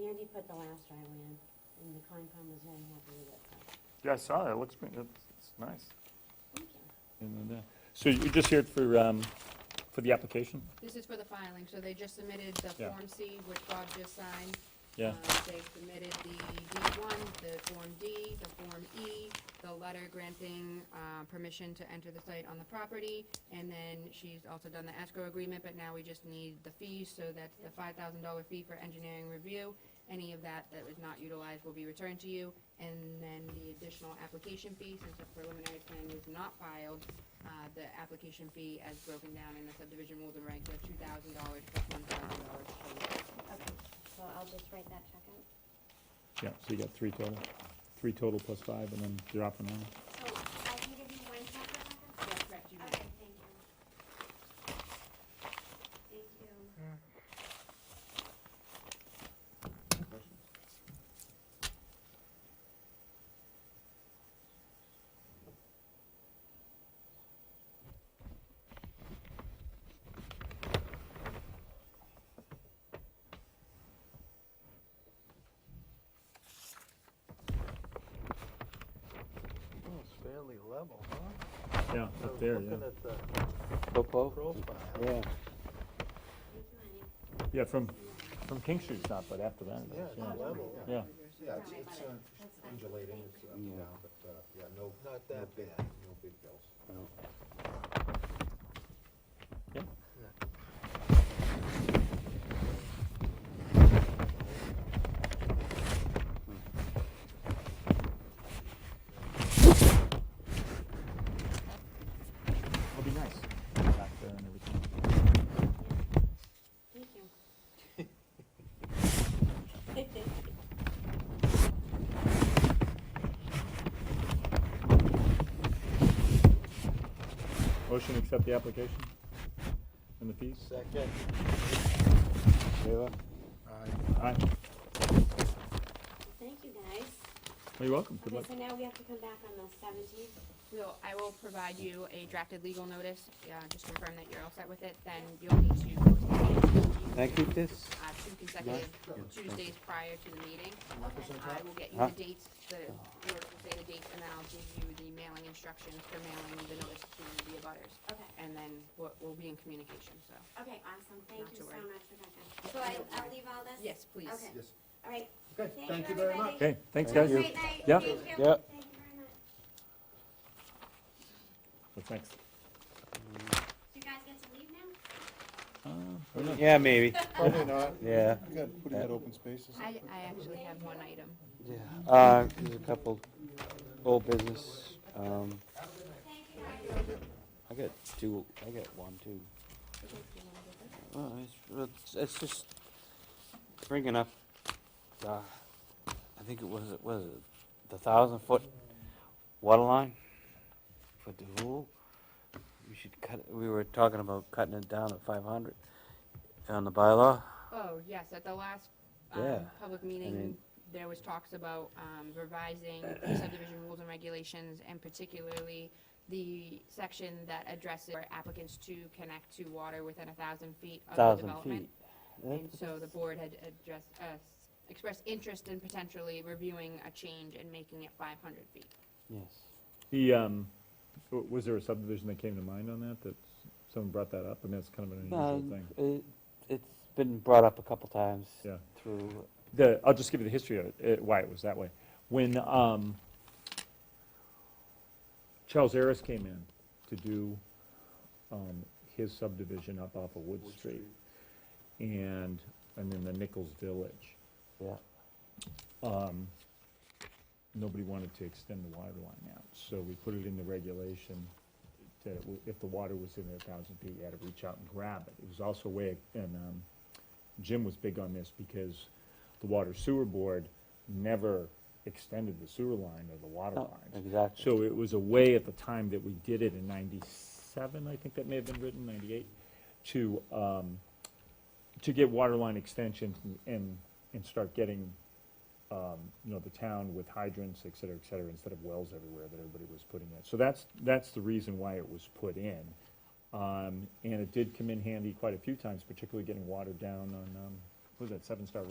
Andy put the last driveway in, and the Concom was very happy with it, so, Yeah, I saw that, it looks, pretty- it's, it's nice. thank you. And, uh, So you're just here for, um, for the application? This is for the filing, so they just submitted the Yeah. Form C, which Bob just signed. Yeah, Um, They submitted the D1, the Form D, the Form E, the letter granting uh, permission to enter the site on the property, and then she's also done the escrow agreement, but now we just need the fees, so that's the $5,000 fee for engineering review. Any of that that was not utilized will be returned to you, and then the additional application fee, since the preliminary plan was not filed, uh, the application fee as broken down in the subdivision rules and regs are $2,000 plus $1,000 for you. Okay, so I'll just write that check out. yeah, so you got three total, three total plus five, and then you're up and running. So I can give you one check back? Yes, correct, you may. Okay, thank you. Thank you. Well, it's fairly level, huh? Yeah, I up was there, yeah. Looking at the profile, Here's mine. Yeah, from, from King Street's not, but after that, it yeah, is, it's yeah. level, Yeah, Yeah, it's, it's uh, undulating, it's up and down, but, uh, yeah, no, not no that big, bad. no big bills. yeah. Hmm. It'll be nice, back there and everything. Thank you. Motion to accept the application and the fees? Second, Aye. Thank you, guys. Well, you're welcome, good Okay, luck. so now we have to come back on the seventeenth. So I will provide you a drafted legal notice, uh, just confirm that you're all set with it, then you'll need to post the meeting. Can I keep this? Uh, two consecutive Tuesdays prior to the meeting. Uh, I will get you Huh? the dates, the, you will say the dates, and then I'll give you the mailing instructions for mailing the notice to the abutters. Okay, And then we'll, we'll be in communication, so. okay, awesome. Not Thank to you so worry. much, Rebecca. So I, I'll leave all this? Yes, please. Okay. Yes. All right. Okay, Thank you very much. Okay, thanks, Have guys. a great night. Yeah. Thank you. Thank you Yeah. very much. What's next? Do you guys get to leave now? Yeah, maybe, Probably not. yeah. We got pretty good open spaces. I, I actually have one item. Uh, there's a couple old business, um, I got two, I got one too. Well, it's- it's, it's just bringing up, uh, I think it was, was it the thousand foot water line for Duhul? We should cut, it- we were talking about cutting it down at five hundred on the bylaw. Oh, yes, at the last, um, Yeah, public meeting, mean- there was talks about, um, revising subdivision rules and regulations, and particularly the section that addresses where applicants to connect to water within a thousand feet of the thousand development. feet. And so the board had addressed, uh, expressed interest in potentially reviewing a change and making it five hundred feet. Yes. The, um, w- was there a subdivision that came to mind on that, that someone brought that up? I mean, that's kind of an unusual No, thing. it, it's been brought up a couple times Yeah. through, The, I'll just give you the history of it, uh, why it was that way. When, um, Charles Harris came in to do, um, his subdivision up off of Wood Street and, and then the Nichols Village, yeah, um, nobody wanted to extend the water line out, so we put it in the regulation that it wa- if the water was in a thousand feet, you had to reach out and grab it. It was also a way, and, um, Jim was big on this because the Water Sewer Board never extended the sewer line or the water No, lines. exactly. So it was a way at the time that we did it in ninety-seven, I think that may have been written, ninety-eight, to, um, to get water line extensions and- and, and start getting, um, you know, the town with hydrants, et cetera, et cetera, instead of wells everywhere that everybody was putting in. So that's, that's the reason why it was put in. Um, and it did come in handy quite a few times, particularly getting water down on, um, what was that, Seven Star Road?